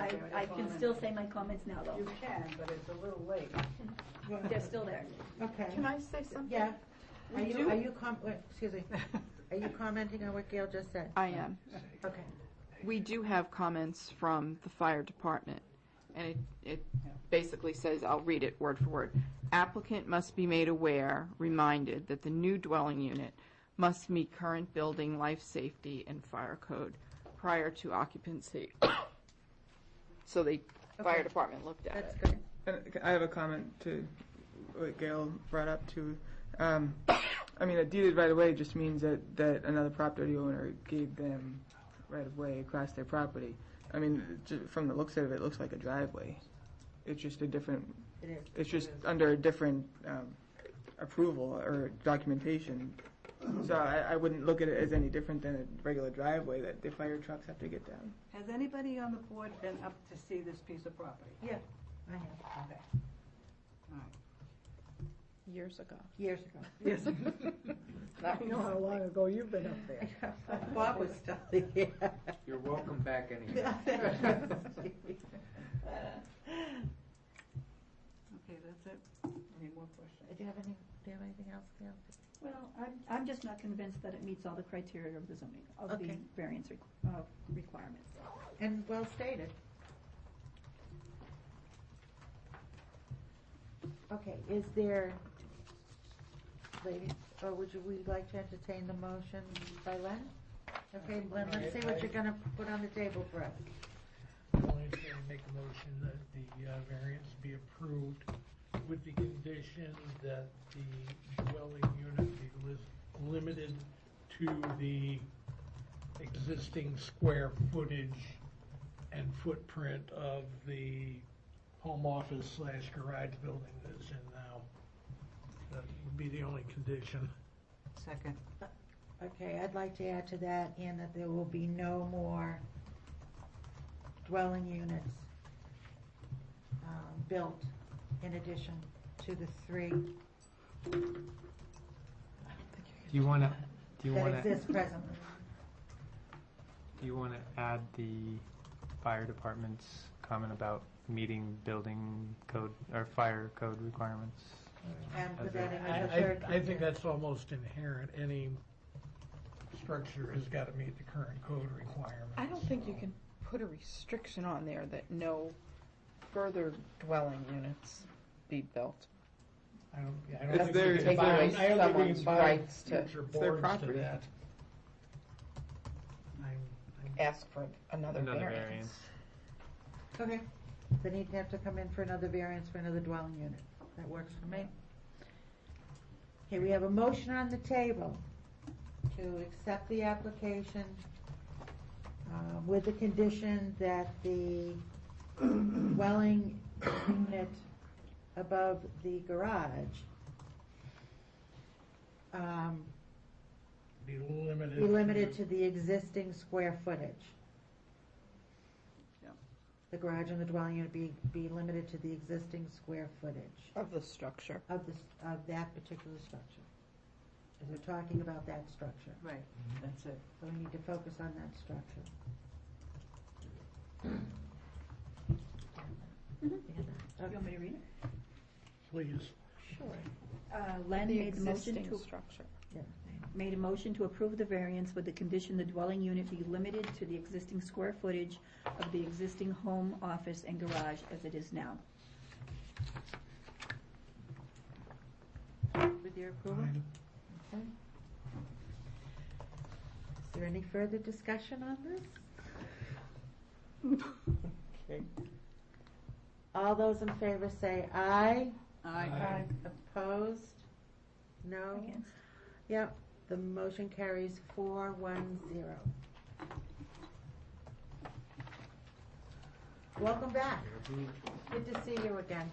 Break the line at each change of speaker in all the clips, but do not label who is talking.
I, I can still say my comments now,
You
though.
can, but it's a little late.
They're still there.
Okay.
Can I say something?
Yeah. Are
We
you,
do-
are you com, wait, excuse me, are you commenting on what Gail just said?
I am.
Okay.
We do have comments from the fire department, and it, it basically says, I'll read it word for word. Applicant must be made aware, reminded, that the new dwelling unit must meet current building, life safety, and fire code prior to occupancy. So the fire
Okay.
department looked at
That's
it.
good.
And I have a comment to what Gail brought up too. Um, I mean, a deeded right of way just means that, that another property owner gave them right of way across their property. I mean, ju- from the looks of it, it looks like a driveway. It's just a different,
It is.
it's just under a different, um, approval or documentation. So I, I wouldn't look at it as any different than a regular driveway that the fire trucks have to get down.
Has anybody on the board been up to see this piece of property?
Yeah, I have,
Okay. All right.
Years ago.
years ago.
Yes. Not
I know how long ago you've been up there.
Bob was still here.
You're welcome back anytime.
Okay, that's it. Any more questions?
Do you have any, do you have anything else, Gail?
Well, I'm, I'm just not convinced that it meets all the criteria of the zoning, of the
Okay.
variance requ- uh, requirements.
And well stated. Okay, is there, ladies, or would you, we like to entertain the motion by Len? Okay, Len, let's see what you're gonna put on the table for us.
I'm going to make a motion that the uh, variance be approved with the condition that the dwelling unit be lis- limited to the existing square footage and footprint of the home office slash garage building that's in now. That would be the only condition.
Second.
Okay, I'd like to add to that, and that there will be no more dwelling units um, built in addition to the three
Do you wanna, do you
that
wanna, do
exist presently.
you wanna add the fire department's comment about meeting building code, or fire code requirements?
And put
As
that
a-
in as a
I,
third.
I, I think
condition.
that's almost inherent, any structure has gotta meet the current code requirements.
I don't think you can put a restriction on there that no further dwelling units be built.
I don't, yeah, I
It's
don't think
their-
we
it's their-
can bind, I don't think we
someone's
can bind
rights to-
future
it's their
boards to
property.
that. I'm, I'm,
Ask for another
Another
variance.
variance.
Okay, then he'd have to come in for another variance for another dwelling unit. That works for me. Okay, we have a motion on the table to accept the application uh, with the condition that the dwelling unit above the garage um,
be limited.
be limited to the existing square footage.
Yep.
The garage and the dwelling unit be, be limited to the existing square footage
Of the structure.
of this, of that particular structure. Because we're talking about that structure,
Right, that's it.
so we need to focus on that structure. Mm-hmm.
Do you want me to read it?
Please.
Sure.
Uh, Len
The
made the motion
existing
to,
structure.
made a motion to approve the variance with the condition the dwelling unit be limited to the existing square footage of the existing home, office, and garage as it is now.
With your approval? Okay. Is there any further discussion on this?
Okay.
All those in favor say aye.
Aye.
Opposed? No?
Against.
Yep, the motion carries four one zero. Welcome back. Good to see you again.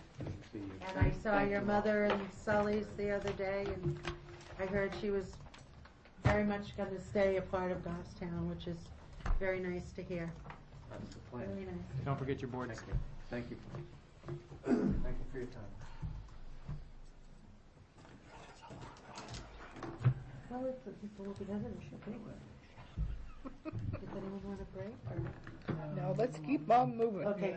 And I saw your mother and Sully's the other day, and I heard she was very much going to stay a part of Goffstown, which is very nice to hear.
That's the plan.
Very nice.
Don't forget your board.
Thank you. Thank you for your time.
Well, it's, it's a little bit of an issue, but anyway. It's
Anyone want a break?
I would, um,
No, let's keep on moving.
Okay,